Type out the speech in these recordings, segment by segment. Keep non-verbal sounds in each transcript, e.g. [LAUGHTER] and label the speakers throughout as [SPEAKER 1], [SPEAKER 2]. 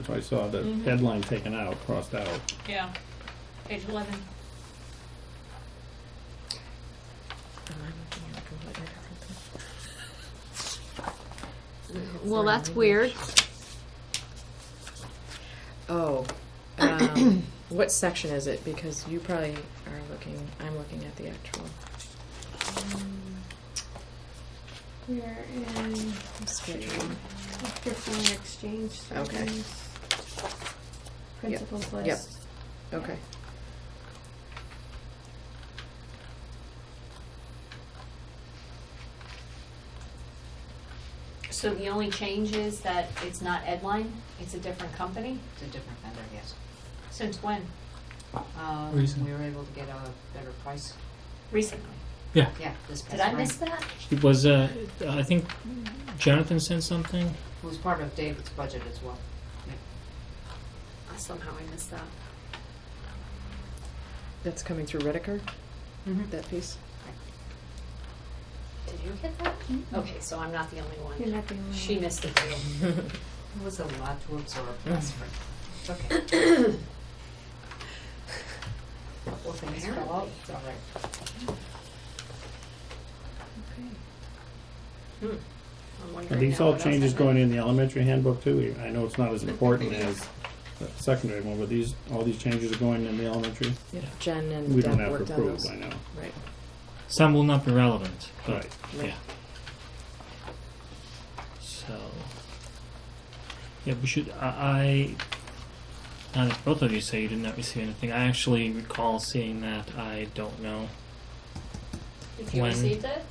[SPEAKER 1] That's why I saw the
[SPEAKER 2] Mhm.
[SPEAKER 1] headline taken out, crossed out.
[SPEAKER 2] Yeah, page eleven.
[SPEAKER 3] Well,
[SPEAKER 4] Foreign
[SPEAKER 3] that's
[SPEAKER 4] language.
[SPEAKER 3] weird.
[SPEAKER 4] Oh,
[SPEAKER 2] [COUGHS]
[SPEAKER 4] um, what section is it? Because you probably are looking, I'm looking at the actual,
[SPEAKER 5] We are in um,
[SPEAKER 4] schedule.
[SPEAKER 5] after foreign exchange
[SPEAKER 4] Okay.
[SPEAKER 5] savings. Principles
[SPEAKER 4] Yep.
[SPEAKER 5] list.
[SPEAKER 4] Okay.
[SPEAKER 2] So the only change is that it's not Edline, it's a different company?
[SPEAKER 6] It's a different vendor, yes.
[SPEAKER 2] Since when?
[SPEAKER 6] Um,
[SPEAKER 7] Reason.
[SPEAKER 6] We were able to get a better price,
[SPEAKER 2] Recently?
[SPEAKER 7] Yeah,
[SPEAKER 6] yeah, this past
[SPEAKER 2] Did I
[SPEAKER 6] spring.
[SPEAKER 2] miss that?
[SPEAKER 7] it was, uh, I think Jonathan sent something.
[SPEAKER 6] It was part of David's budget as well.
[SPEAKER 2] Uh, Somehow I missed that.
[SPEAKER 4] That's coming through Redeker,
[SPEAKER 6] Mm-hmm.
[SPEAKER 2] [LAUGHS]
[SPEAKER 4] that piece?
[SPEAKER 2] Did you get that? Okay, so I'm not the only
[SPEAKER 5] You're
[SPEAKER 2] one.
[SPEAKER 5] not the only one.
[SPEAKER 2] She missed it too.
[SPEAKER 6] It was a lot to absorb last spring. It's okay. Couple things fell out, it's all right.
[SPEAKER 2] Hmm. I'm wondering
[SPEAKER 1] Are these
[SPEAKER 2] now
[SPEAKER 1] all
[SPEAKER 2] what else I
[SPEAKER 1] changes
[SPEAKER 2] missed.
[SPEAKER 1] going in the elementary handbook too? I know it's not as important as the secondary one, but these, all these changes are going in the elementary?
[SPEAKER 4] Yeah, Jen
[SPEAKER 1] We
[SPEAKER 4] and
[SPEAKER 1] don't
[SPEAKER 4] Deb
[SPEAKER 1] have
[SPEAKER 4] worked
[SPEAKER 1] to
[SPEAKER 4] on
[SPEAKER 1] approve,
[SPEAKER 4] those.
[SPEAKER 1] I know.
[SPEAKER 4] Right,
[SPEAKER 7] Some will not be relevant, but
[SPEAKER 1] Right.
[SPEAKER 7] yeah. So, yeah, we should. I, I now that both of you say you did not receive anything, I actually recall seeing that. I don't know.
[SPEAKER 2] If you
[SPEAKER 7] When-
[SPEAKER 2] received it?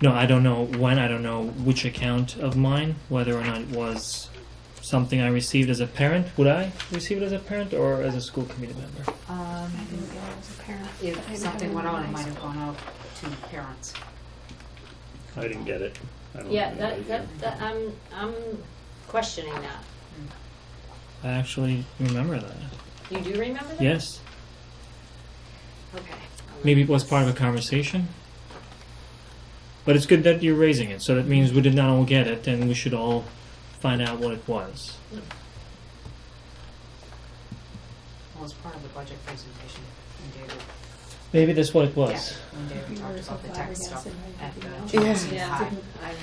[SPEAKER 7] No, I don't know when. I don't know which account of mine. Whether or not it was something I received as a parent. Would I receive it as a parent or as a school committee member?
[SPEAKER 6] Um,
[SPEAKER 5] I didn't get it as a parent. I
[SPEAKER 6] if
[SPEAKER 5] didn't
[SPEAKER 6] something
[SPEAKER 5] have
[SPEAKER 6] went
[SPEAKER 5] it in
[SPEAKER 6] on, it
[SPEAKER 5] high
[SPEAKER 6] might have
[SPEAKER 5] school.
[SPEAKER 6] gone out to parents.
[SPEAKER 1] I didn't get it. I don't
[SPEAKER 2] Yeah,
[SPEAKER 1] have any
[SPEAKER 2] that,
[SPEAKER 1] idea.
[SPEAKER 2] that, that, I'm, I'm questioning that.
[SPEAKER 7] I actually remember that.
[SPEAKER 2] You do remember that?
[SPEAKER 7] Yes,
[SPEAKER 2] Okay.
[SPEAKER 7] maybe it was part of a conversation. But it's good that you're raising it, so that means we did not all get it, and we should all find out what it was.
[SPEAKER 6] Well, it's part of the budget presentation when David,
[SPEAKER 7] Maybe that's what it was.
[SPEAKER 6] yeah, when David
[SPEAKER 5] We
[SPEAKER 6] talked
[SPEAKER 5] were so
[SPEAKER 6] about the tax stuff
[SPEAKER 5] flabbergasted by
[SPEAKER 6] at
[SPEAKER 5] everything
[SPEAKER 6] the
[SPEAKER 5] else.
[SPEAKER 4] Yeah.
[SPEAKER 2] Yeah.
[SPEAKER 6] Jackson High.
[SPEAKER 2] I'm-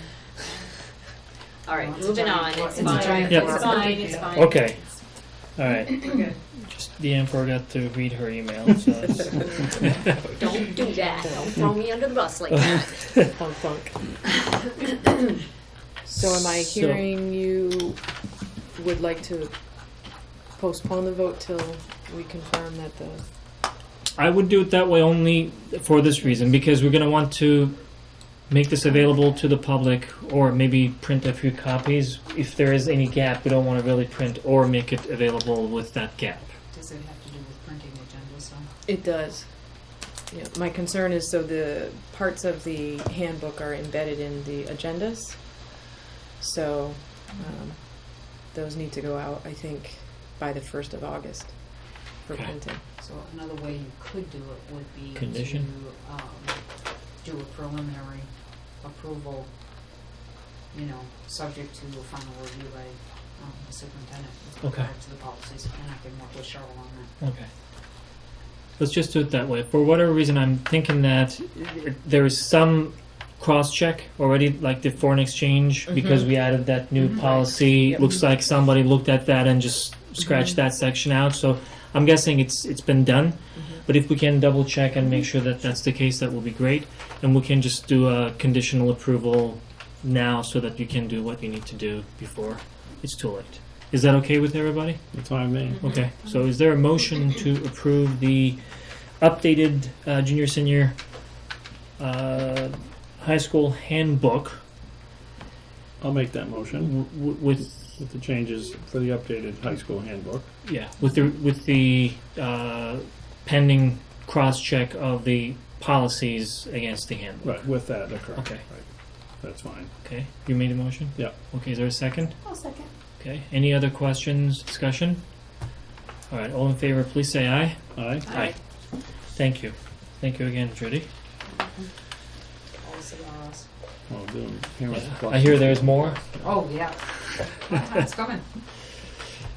[SPEAKER 2] All right,
[SPEAKER 6] Well, it's a
[SPEAKER 2] moving on,
[SPEAKER 6] giant
[SPEAKER 2] it's
[SPEAKER 6] fly- it's a
[SPEAKER 2] fine,
[SPEAKER 6] giant
[SPEAKER 2] it's
[SPEAKER 6] fly-
[SPEAKER 2] fine, it's fine.
[SPEAKER 7] Okay. All right. Just the emperor got to read her email.
[SPEAKER 4] [LAUGHS]
[SPEAKER 7] So it's-
[SPEAKER 2] Don't do that, don't throw me under the bus like
[SPEAKER 7] [LAUGHS]
[SPEAKER 2] that.
[SPEAKER 4] thunk thunk. So am I
[SPEAKER 7] So-
[SPEAKER 4] hearing you would like to postpone the vote till we confirm that the,
[SPEAKER 7] I would do it that way only for this reason because we're going to want to make this available to the public or maybe print a few copies. If there is any gap, we don't want to really print or make it available with that gap.
[SPEAKER 6] Does it have to do with printing agendas though?
[SPEAKER 4] it does. Yeah, my concern is so the parts of the handbook are embedded in the agendas. So, um, those need to go out, I think, by the first of August for
[SPEAKER 7] Okay.
[SPEAKER 4] printing.
[SPEAKER 6] So another way you could do it would be
[SPEAKER 7] Condition?
[SPEAKER 6] to um, do a preliminary approval, you know, subject to a final review by um, the superintendent with
[SPEAKER 7] Okay.
[SPEAKER 6] regard to the policies, and I can work with Cheryl on that.
[SPEAKER 7] Okay. Let's just do it that way. For whatever reason, I'm thinking that there is some cross check already, like the foreign exchange, because we added that new
[SPEAKER 6] Mhm.
[SPEAKER 7] policy.
[SPEAKER 4] Yep.
[SPEAKER 7] Looks like somebody looked at that and just scratched that section out. So I'm guessing it's it's been done. But if we can double check and make sure that that's the case, that will be great. And we can just do a conditional approval now, so that you can do what you need to do before it's too late. Is that okay with everybody?
[SPEAKER 1] That's what I mean.
[SPEAKER 7] Okay, so is there a motion to approve the updated uh, junior senior uh, high school handbook
[SPEAKER 1] I'll make that motion
[SPEAKER 7] w- w- with
[SPEAKER 1] with the changes for the updated high school handbook.
[SPEAKER 7] yeah with the with the uh, pending cross check of the policies against the handbook?
[SPEAKER 1] Right, with that occurring.
[SPEAKER 7] Okay.
[SPEAKER 1] That's fine.
[SPEAKER 7] Okay, you made a motion.
[SPEAKER 1] Yeah.
[SPEAKER 7] Okay, is there a second?
[SPEAKER 5] I'll second.
[SPEAKER 7] Okay, any other questions, discussion? All right, all in favor, please say aye.
[SPEAKER 1] Aye?
[SPEAKER 7] Aye. Thank you, thank you again, Judy.
[SPEAKER 6] Also, uh, s-
[SPEAKER 1] Oh, dude. Here was the
[SPEAKER 7] I hear there's more.
[SPEAKER 5] [LAUGHS]
[SPEAKER 6] Oh, yeah. It's coming.